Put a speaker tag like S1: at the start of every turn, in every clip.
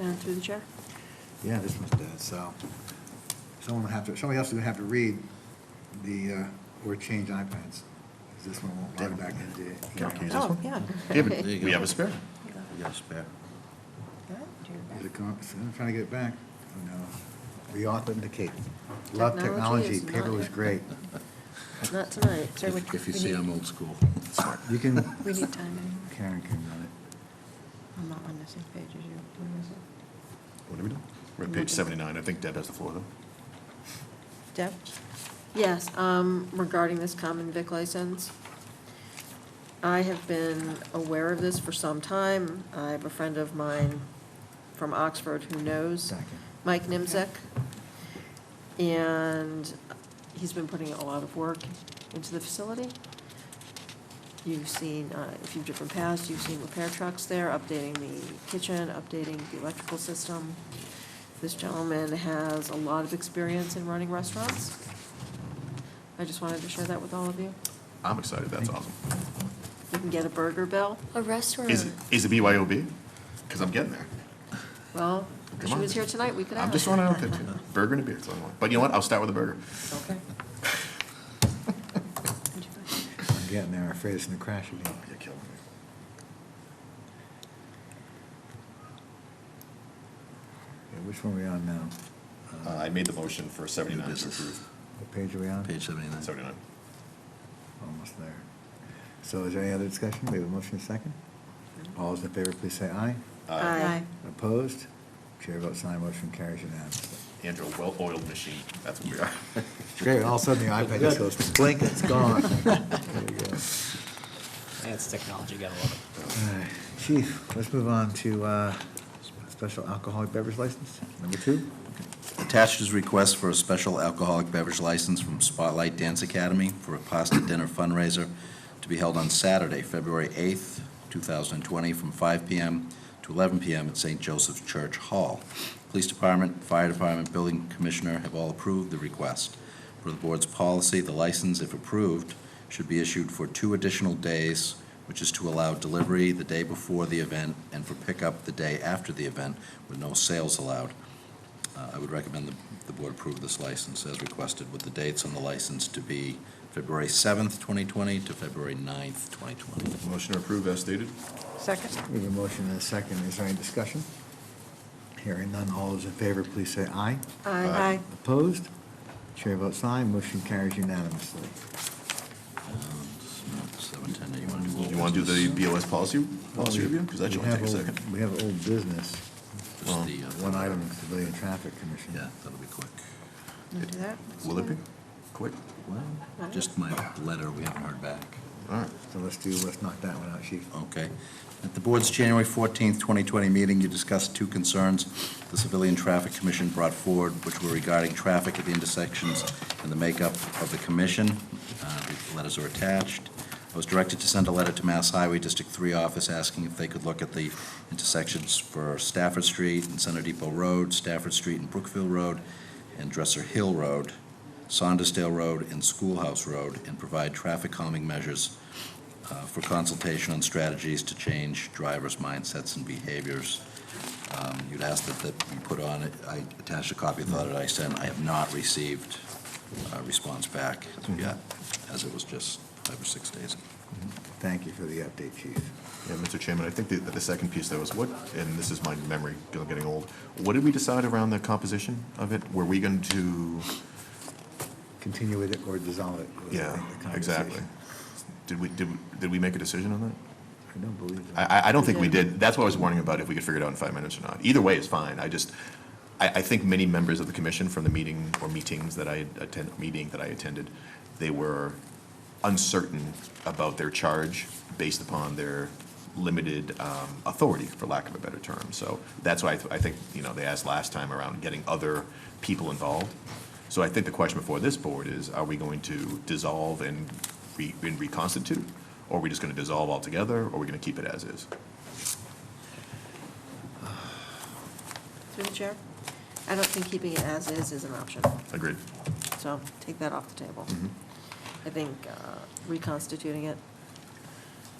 S1: Uh, Through the chair.
S2: Yeah, this one's dead, so someone will have to, somebody else is gonna have to read the, uh, or change iPads. 'cause This one won't log back into.
S3: Can I use
S2: email.
S3: this
S1: Oh,
S3: one?
S1: yeah.
S3: Yeah, but
S1: There you
S3: We
S1: go.
S3: have a spare.
S1: Yeah.
S3: We got a spare.
S2: Is it gone? So I'm trying to get it back. Oh, no. Reauthenticate. Love
S1: Technology
S2: technology,
S1: is
S2: paper
S1: not-
S2: was great.
S1: Not tonight. Sir, we-
S4: If if you
S1: we
S4: see
S1: need-
S4: I'm old school.
S2: You can,
S1: We need time anyway.
S2: Karen can run it.
S1: I'm not on the same page as you. Where is it?
S3: What are we doing? We're at
S1: I'm
S3: page
S1: looking.
S3: 79. I think Deb has the floor, though.
S1: Deb? Yes, um, regarding this common vic license. I have been aware of this for some time. I have a friend of mine from Oxford who knows,
S2: Second.
S1: Mike Nimzek. And he's been putting a lot of work into the facility. You've seen, uh, if you've driven past, you've seen repair trucks there, updating the kitchen, updating the electrical system. This gentleman has a lot of experience in running restaurants. I just wanted to share that with all of you.
S3: I'm excited. That's
S2: Thank
S3: awesome.
S1: You can get a burger bill.
S5: A restaurant.
S3: Is, it- is it BYOB? Because I'm getting there.
S1: Well,
S3: Come
S1: she
S3: on.
S1: was here tonight, we could ask.
S3: I'm just running out there, too. Burger and a beer. that's all I want. But you know what? I'll start with a burger.
S1: Okay.
S2: I'm getting there. I'm afraid it's gonna crash again.
S3: Oh, You're killing me.
S2: Yeah, Which one are we on now?
S3: Uh, I made the motion for 79 to
S4: business.
S3: approve.
S2: What page are we on?
S4: Page 79.
S3: 79.
S2: Almost there. So is there any other discussion? We have a motion and a second? All those in favor, please say aye.
S3: Uh,
S1: Aye.
S2: Opposed? Chair votes aye, motion carries unanimously.
S3: Andrew, a well-oiled machine. That's what we are.
S2: It's Great, all of a sudden the iPad just goes blink, it's gone. There you go.
S6: That's technology, gotta love it.
S2: All right, Chief, let's move on to uh, special alcoholic beverage license, number two.
S4: Attached is request for a special alcoholic beverage license from Spotlight Dance Academy for a pasta dinner fundraiser to be held on Saturday, February 8th, 2020, from 5 p.m. to 11 p.m. at St. Joseph's Church Hall. Police Department, Fire Department, Building Commissioner have all approved the request. Per the board's policy, the license, if approved, should be issued for two additional days, which is to allow delivery the day before the event and for pickup the day after the event with no sales allowed. Uh, I would recommend the the board approve this license as requested, with the dates on the license to be February 7th, 2020 to February 9th, 2020.
S3: Motion to approve as stated.
S1: Second?
S2: We have a motion and a second, is there any discussion? Hearing none, all those in favor, please say aye.
S1: Aye.
S2: Opposed? Chair votes aye, motion carries unanimously.
S4: Um, it's not 7:10, you want to do old
S3: You want to do the
S4: business?
S3: BOS policy, policy review? Because that should
S2: We
S3: only
S2: have
S3: take a
S2: old-
S3: second.
S2: We have old business,
S4: Just the, uh,
S2: um, one item, Civilian Traffic Commission.
S4: Yeah, that'll be quick.
S1: Wanna do that?
S3: Will it be? Quick.
S4: Well, just my letter, we haven't heard back.
S3: All right.
S2: So let's do, let's knock that one out, chief.
S4: Okay. At the board's January 14th, 2020 meeting, you discussed two concerns the Civilian Traffic Commission brought forward, which were regarding traffic at the intersections and the makeup of the commission. Uh, The letters are attached. I was directed to send a letter to Mass Highway District 3 office asking if they could look at the intersections for Stafford Street and Center Depot Road, Stafford Street and Brookfield Road, and Dresser Hill Road, Saundersdale Road, and Schoolhouse Road, and provide traffic calming measures uh, for consultation on strategies to change drivers' mindsets and behaviors. Um, You'd asked that, that you put on it, I attached a copy of the letter I sent, I have not received a response back as of yet, as it was just five or six days ago.
S2: Thank you for the update, chief.
S3: Yeah, Mr. Chairman, I think the, the second piece though is what, and this is my memory g- getting old, what did we decide around the composition of it? Were we going to,
S2: Continue with it or dissolve it. was, I
S3: yeah,
S2: think, the
S3: exactly.
S2: conversation.
S3: Did we, did, we- did we make a decision on that?
S2: I don't believe that.
S3: I, I, I don't think we
S1: Yeah.
S3: did. That's what I was warning about, if we could figure it out in five minutes or not. Either way is fine. I just, I, I think many members of the commission from the meeting or meetings that I had attend, meeting that I attended, they were uncertain about their charge based upon their limited um, authority, for lack of a better term. So that's why I, th- I think, you know, they asked last time around getting other people involved. So I think the question before this board is, are we going to dissolve and re- and reconstitute? Or are we just going to dissolve altogether, or are we going to keep it as is?
S1: Through the chair? I don't think keeping it as is is an option,
S3: Agreed.
S1: so take that off the table. I think uh, reconstituting it,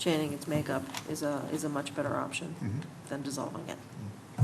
S1: changing its makeup is a, is a much better option than dissolving it.